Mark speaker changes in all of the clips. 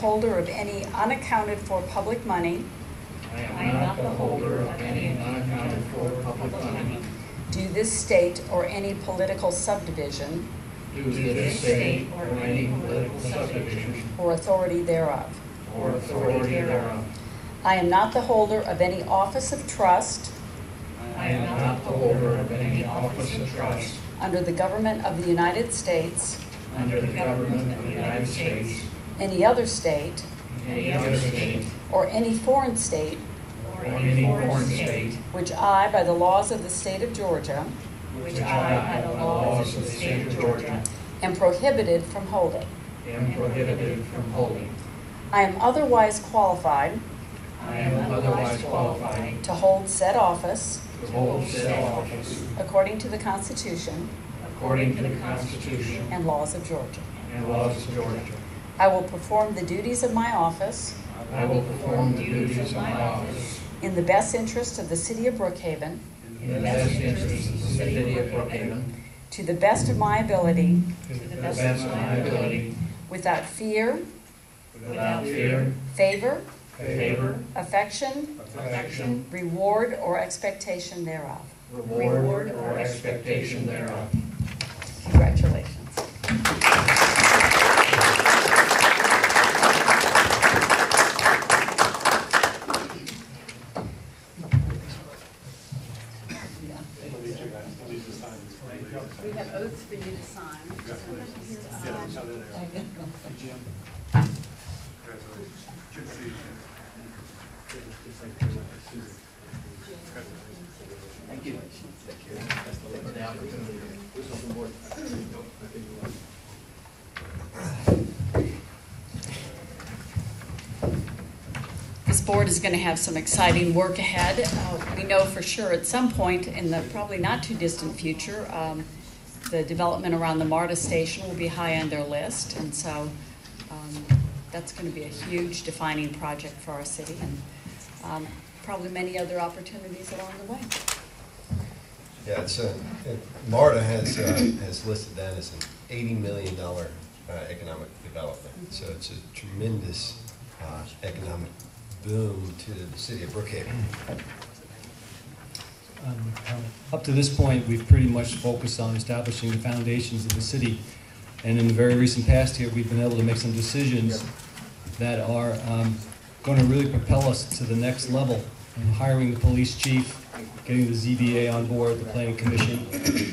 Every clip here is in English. Speaker 1: holder of any unaccounted-for public money
Speaker 2: I am not the holder of any unaccounted-for public money
Speaker 1: due this state or any political subdivision
Speaker 2: due to this state or any political subdivision
Speaker 1: or authority thereof.
Speaker 2: or authority thereof.
Speaker 1: I am not the holder of any office of trust
Speaker 2: I am not the holder of any office of trust
Speaker 1: under the government of the United States,
Speaker 2: under the government of the United States,
Speaker 1: any other state,
Speaker 2: any other state,
Speaker 1: or any foreign state
Speaker 2: or any foreign state,
Speaker 1: which I, by the laws of the state of Georgia,
Speaker 2: which I, by the laws of the state of Georgia,
Speaker 1: am prohibited from holding.
Speaker 2: am prohibited from holding.
Speaker 1: I am otherwise qualified
Speaker 2: I am otherwise qualified
Speaker 1: to hold said office
Speaker 2: to hold said office
Speaker 1: according to the Constitution
Speaker 2: according to the Constitution
Speaker 1: and laws of Georgia.
Speaker 2: and laws of Georgia.
Speaker 1: I will perform the duties of my office
Speaker 2: I will perform the duties of my office
Speaker 1: in the best interest of the city of Brookhaven,
Speaker 2: in the best interest of the city of Brookhaven,
Speaker 1: to the best of my ability,
Speaker 2: to the best of my ability,
Speaker 1: without fear,
Speaker 2: without fear,
Speaker 1: favor,
Speaker 2: favor,
Speaker 1: affection,
Speaker 2: affection,
Speaker 1: reward, or expectation thereof.
Speaker 2: reward, or expectation thereof.
Speaker 1: Congratulations.
Speaker 3: We have oaths for you to sign.
Speaker 1: This board is going to have some exciting work ahead. Uh, We know for sure at some point in the probably not too distant future, um, the development around the MARTA station will be high on their list. And so um, that's going to be a huge defining project for our city and um, probably many other opportunities along the way.
Speaker 4: Yeah, it's, uh, it- MARTA has, uh, has listed that as an eighty million dollar uh, economic development. So it's a tremendous uh, economic boom to the city of Brookhaven.
Speaker 5: Um, Up to this point, we've pretty much focused on establishing the foundations of the city. And in the very recent past here, we've been able to make some decisions that are going to really propel us to the next level. Hiring the police chief, getting the ZBA on board, the planning commission.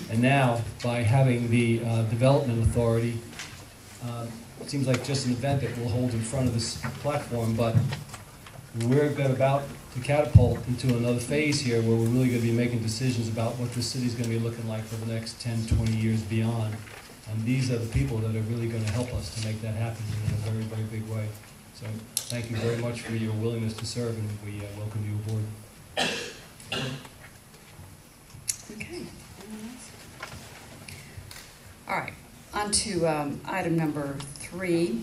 Speaker 5: And now, by having the uh, development authority, uh, it seems like just an event that we'll hold in front of this platform, but we're go- about to catapult into another phase here where we're really gonna be making decisions about what the city's gonna be looking like for the next 10, 20 years beyond. And these are the people that are really gonna help us to make that happen in a very, very big way. So thank you very much for your willingness to serve, and we uh, welcome you aboard.
Speaker 1: Okay. anyone else? All right, on to um, item number three.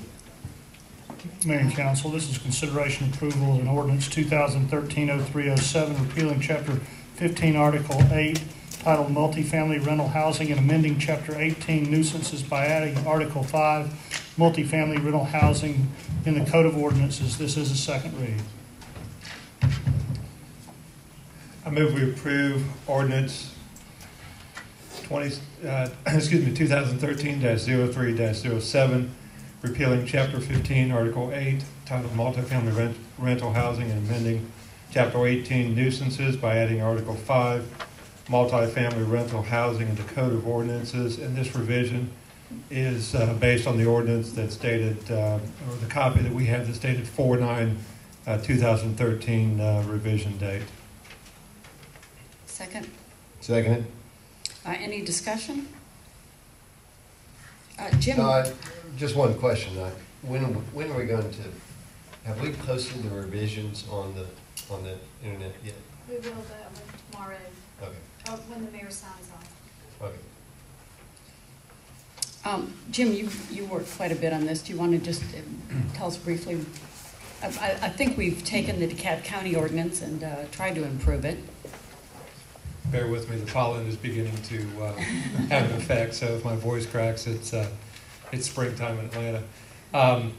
Speaker 6: Mayor and Council, this is consideration approval of an ordinance 2013-0307, repealing Chapter 15, Article 8, titled Multifamily Rental Housing, and amending Chapter 18 nuisances by adding Article 5, Multifamily Rental Housing, in the Code of Ordinances. This is a second read.
Speaker 7: I move we approve ordinance 20, uh, excuse me, 2013-03-07, repealing Chapter 15, Article 8, titled Multifamily Rent- Rental Housing and amending Chapter 18 nuisances by adding Article 5, Multifamily Rental Housing into Code of Ordinances. And this revision is uh, based on the ordinance that's dated, uh, or the copy that we have that's dated uh, 4/9/2013 uh, revision date.
Speaker 1: Second,
Speaker 4: Second.
Speaker 1: Uh, any discussion? Uh, Jim?
Speaker 4: Uh, Just one question, uh, when, when are we going to, have we posted the revisions on the, on the internet yet?
Speaker 8: We will, but tomorrow,
Speaker 4: Okay,
Speaker 8: uh, when the mayor signs off.
Speaker 4: okay.
Speaker 1: Um, Jim, you, you worked quite a bit on this. Do you want to just um, tell us briefly? I, I- I think we've taken the DeKalb County ordinance and uh, tried to improve it.
Speaker 7: bear with me, the pollen is beginning to uh, have an effect, so if my voice cracks, it's, uh, it's springtime in Atlanta. Um,